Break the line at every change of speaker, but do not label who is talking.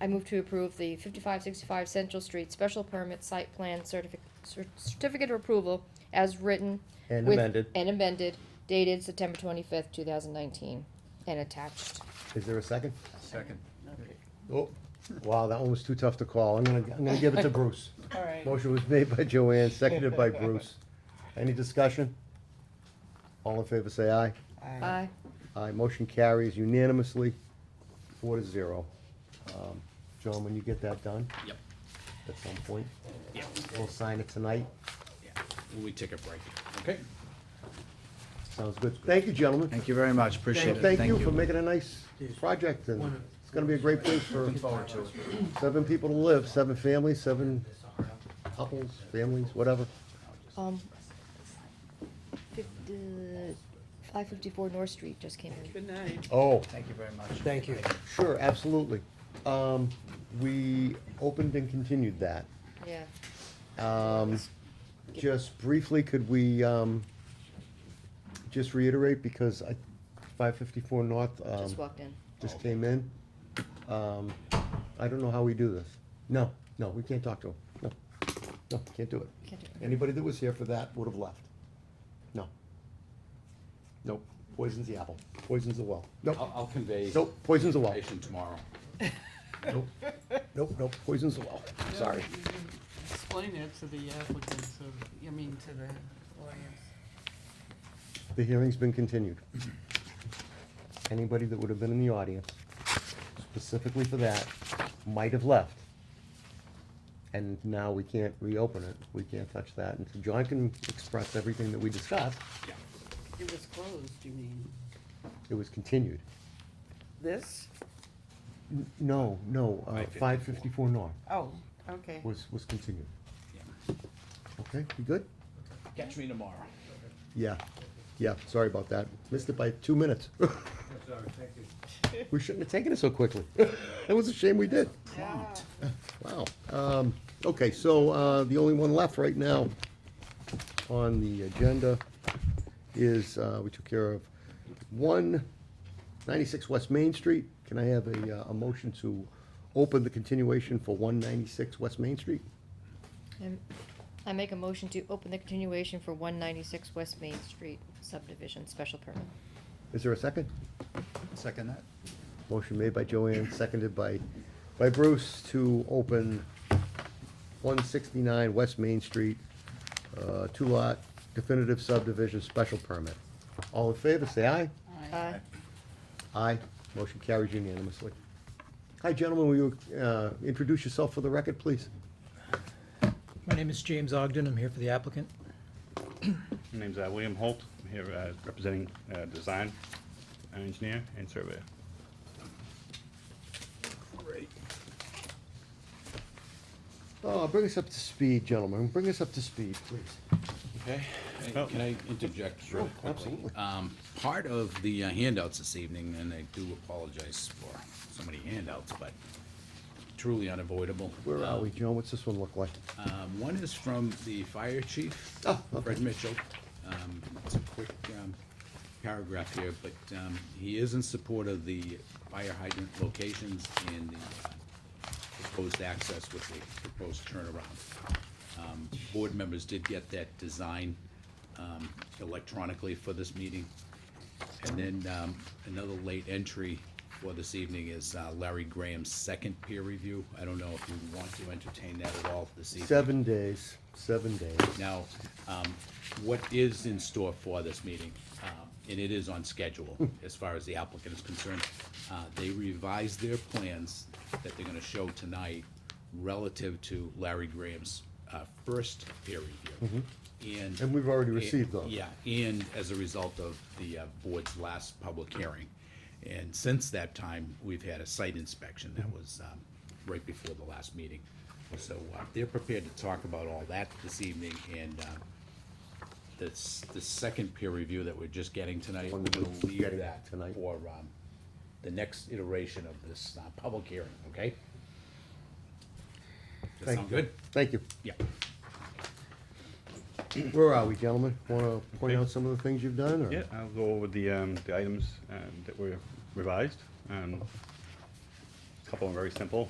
I move to approve the fifty-five sixty-five Central Street special permit site plan certificate, certificate of approval as written.
And
with-
amended.
And amended, dated September twenty-fifth, two thousand nineteen, and attached.
Is there a second?
Second.
Oh, wow, that one was too tough to call. I'm gonna, I'm gonna give it to Bruce.
All right.
Motion was made by Joanne, seconded by Bruce. Any discussion? All in favor, say aye.
Aye.
Aye, motion carries unanimously, four to zero. Um, John, when you get that done?
Yep.
At some point,
Yeah,
we'll sign it tonight.
yeah. We take a break. Okay.
Sounds good. Thank you, gentlemen.
Thank you very much, appreciate it.
Thank you for making a nice project, and it's gonna be a great place for seven people to live, seven families, seven couples, families, whatever.
Um, five fifty-four North Street just came in.
Good night.
Oh,
Thank you very much.
Thank you.
sure, absolutely. Um, we opened and continued that.
Yeah.
Um, just briefly, could we, um, just reiterate, because I, five fifty-four North, um,
Just walked in.
just came in. Um, I don't know how we do this. No, no, we can't talk to him. No, no, can't do it.
Can't do it.
Anybody that was here for that would have left. No. Nope, poisons the apple, poisons the well. Nope,
I'll, I'll convey.
nope, Oh. poisons the well.
Information tomorrow.
Nope, nope, nope, poisons the well. Sorry.
Explain it to the applicant, so, I mean, to the audience.
The hearing's been continued. Anybody that would have been in the audience specifically for that might have left. And now we can't reopen it, we can't touch that, and so John can express everything that we discussed,
Yeah.
It was closed, you mean?
it was continued.
This?
N- No, no, uh, five
554
fifty-four North
Oh, okay.
was, was continued.
Yeah.
Okay, you good?
Catch me tomorrow.
Yeah, yeah, sorry about that, missed it by two minutes. We shouldn't have taken it so quickly. It was a shame we did.
Prompt.
Wow. Um, Okay, so uh, the only one left right now on the agenda is, uh, we took care of one ninety-six West Main Street. Can I have a, uh, a motion to open the continuation for one ninety-six West Main Street?
Um, I make a motion to open the continuation for one ninety-six West Main Street subdivision special permit.
Is there a second?
Second that?
Motion made by Joanne, seconded by, by Bruce to open one sixty-nine West Main Street, uh, two-lot definitive subdivision special permit. All in favor, say aye.
Uh,
Aye.
Aye, motion carries unanimously. Hi, gentlemen, will you uh, introduce yourself for the record, please?
My name is James Ogden. I'm here for the applicant.
My name's uh, William Holt. I'm here uh, representing uh, design uh, engineer and surveyor.
Great.
Oh, bring us up to speed, gentlemen, bring us up to speed, please.
Okay, Hey,
Oh.
can I interject real
Oh,
Sure,
quickly?
absolutely.
Um, part of the uh, handouts this evening, and I do apologize for so many handouts, but truly unavoidable.
Where are we, Joan? What's this one look like?
Um, one is from the fire chief,
Oh, okay.
Fred Mitchell. Um, it's a quick, um, paragraph here, but, um, he is in support of the fire hydrant locations and the uh, proposed access with the proposed turnaround. Um, board members did get that design, um, electronically for this meeting. And then, um, another late entry for this evening is uh, Larry Graham's second peer review. I don't know if you want to entertain that at all this evening.
Seven days, seven days.
Now, um, what is in store for this meeting, uh, and it is on schedule
Hmm.
as far as the applicant is concerned, uh, they revised their plans that they're gonna show tonight relative to Larry Graham's uh, first peer review. And.
Mm-hmm. And we've already received those.
Yeah, and as a result of the uh, board's last public hearing. And since that time, we've had a site inspection that was um, right before the last meeting. So uh, they're prepared to talk about all that this evening, and um, this, the second peer review that we're just getting tonight, we're
One that
gonna
we're
leave
getting
that
tonight.
for um, the next iteration of this uh, public hearing, okay? Does that
Thank
sound
you.
good?
Thank you.
Yeah.
Where are we, gentlemen? Want to point
Okay.
out some of the things you've done, or?
Yeah, I'll go over the, um, the items, um, that were revised. Um, a Couple are very simple.